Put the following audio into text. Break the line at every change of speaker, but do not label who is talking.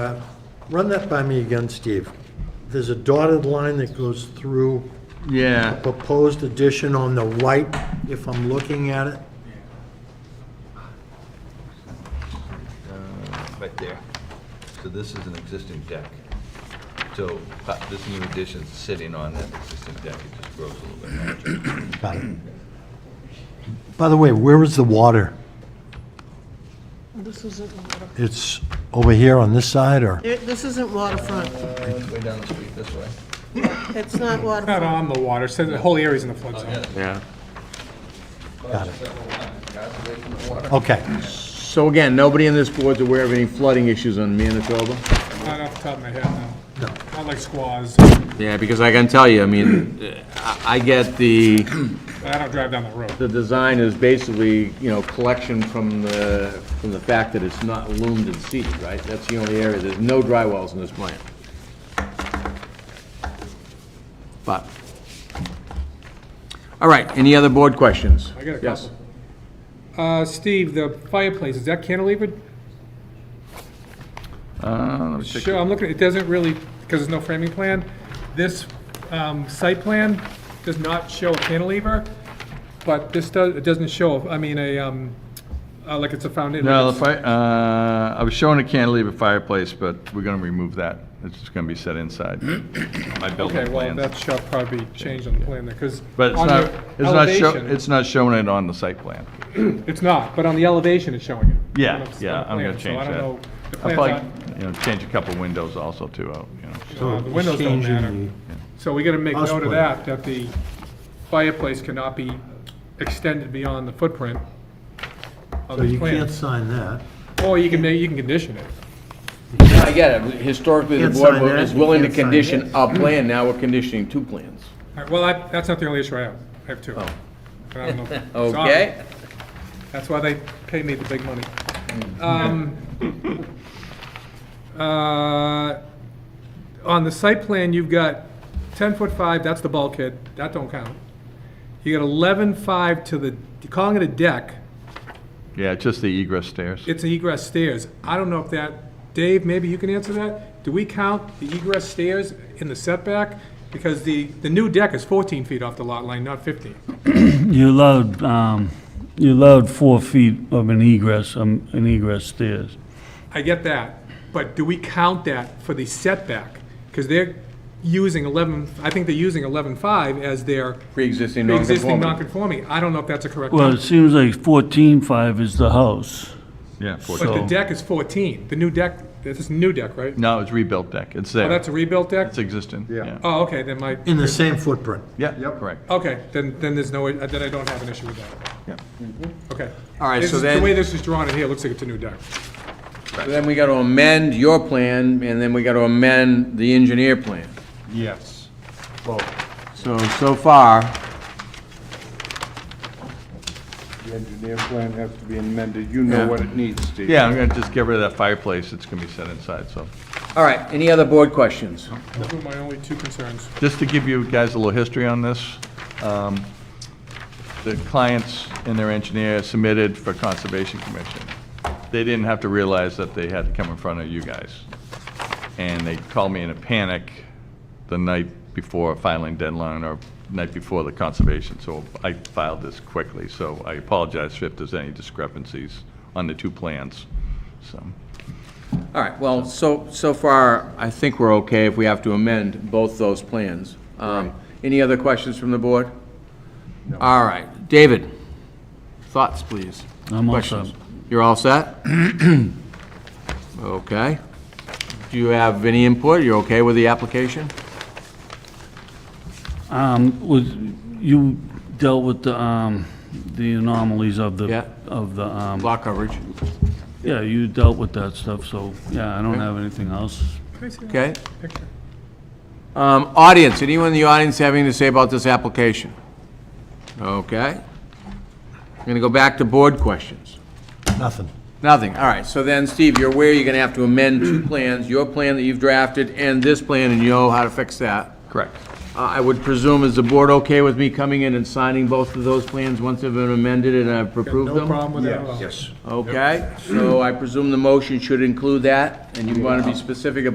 Uh, Run that by me again, Steve. There's a dotted line that goes through a
Yeah,
proposed addition on the right, if I'm looking at it.
Right there. So this is an existing deck. So uh, this new addition's sitting on that existing deck, it just grows a little bit larger.
By the way, where is the water?
This isn't, water-
It's over here on this side, or?
there- this isn't waterfront.
Way down the street this way.
It's not
Not
waterfront.
on the water, so the whole area's in the flood zone.
yeah.
Okay,
So again, nobody in this board's aware of any flooding issues on Manitoba?
Not off the top of my head, no.
No.
Not like squaws.
Yeah, because I can tell you, I mean, I- I get the,
I don't drive down the road.
the design is basically, you know, collection from the, from the fact that it's not loomed and seeded, right? That's the only area, there's no dry wells in this plan. But, all right, any other board questions?
I got a
Yes.
couple. Uh, Steve, the fireplace, is that cantilevered?
Uh,
Sure, I'm looking, it doesn't really, because there's no framing plan, this um, site plan does not show a cantilever, but this does, it doesn't show, I mean, a, um, uh, like it's a foundation.
No, the fi, uh, I was showing a cantilever fireplace, but we're gonna remove that. It's just gonna be set inside my building
Okay, well,
plans.
that should probably be changed on the plan there, because
But it's
on
not,
the
it's not show,
elevation,
it's not showing it on the site plan.
it's not, but on the elevation, it's showing it.
Yeah,
On the- on the
yeah, I'm gonna
plan,
change
So I
that.
don't know, the
I'll
plan's
probably,
not,
you know, change a couple windows also too, out, you know.
uh, the windows don't
Changing
matter. So we gotta make
House
note of
plan.
that, that the fireplace cannot be extended beyond the footprint
so
of the
you
plan.
can't sign that.
Or you can, ma- you can condition it.
I get it, historically, the
Can't
board
sign that,
is willing to
can't sign
condition a plan, now we're conditioning two plans.
All right, Well, I- that's not the only issue I have, I have two.
Oh.
And I don't know- sorry.
Okay?
That's why they pay me the big money. Um, uh, On the site plan, you've got 10 foot 5, that's the bulkhead, that don't count. You got 11 5 to the, you're calling it a deck,
Yeah, just the egress stairs.
it's egress stairs. I don't know if that, Dave, maybe you can answer that? Do we count the egress stairs in the setback? Because the, the new deck is 14 feet off the lot line, not 15.
You allowed, um, you allowed four feet of an egress, um, an egress stairs.
I get that, but do we count that for the setback? Because they're using 11, I think they're using 11.5 as their
Pre-existing non-conformity.
existing non-conforming. I don't know if that's a correct
Well,
number.
it seems like fourteen-five is the house.
Yeah,
But the
forty.
deck is 14, the new deck, this is new deck, right?
No, it's rebuilt deck. It's
Oh,
there.
that's a rebuilt deck?
It's existing, yeah.
Oh, okay, then my,
In the same footprint.
Yeah, correct.
okay, then, then there's no, then I don't have an issue with that. Mm-hmm.
Yep.
Okay.
All right,
This
so
is-
then-
The way this is drawn in here, it looks like it's a new deck.
So Then we gotta amend your plan, and then we gotta amend the engineer plan.
Yes.
So, so far,
The engineer plan has to be amended, you know what it needs, Steve.
Yeah, I'm gonna just get rid of that fireplace. It's gonna be set inside, so.
all right, any other board questions?
Those were my only two concerns.
Just to give you guys a little history on this, um, the clients and their engineer submitted for Conservation Commission. They didn't have to realize that they had to come in front of you guys. And they called me in a panic the night before filing deadline or night before the conservation, so I filed this quickly. So I apologize if there's any discrepancies on the two plans, so.
All right, well, so, so far, I think we're okay if we have to amend both those plans. Um, Any other questions from the board? All right, David, thoughts, please?
I'm all
Questions?
set.
You're all set? Okay. Do you have any input? You're okay with the application?
Um, was, you dealt with the, um, the anomalies of
Yeah.
the, of the, um,
Block coverage,
yeah, you dealt with that stuff, so, yeah, I don't have anything else.
okay? Um, Audience, anyone in the audience have anything to say about this application? Okay. I'm going to go back to board questions.
Nothing.
Nothing, all right, so then, Steve, you're aware you're gonna have to amend two plans, your plan that you've drafted and this plan, and you know how to fix that.
Correct.
Um, I would presume, is the board okay with me coming in and signing both of those plans once they've been amended and I've approved
No
them?
problem with that at all.
Okay, so I presume the motion should include that, and you want to be specific about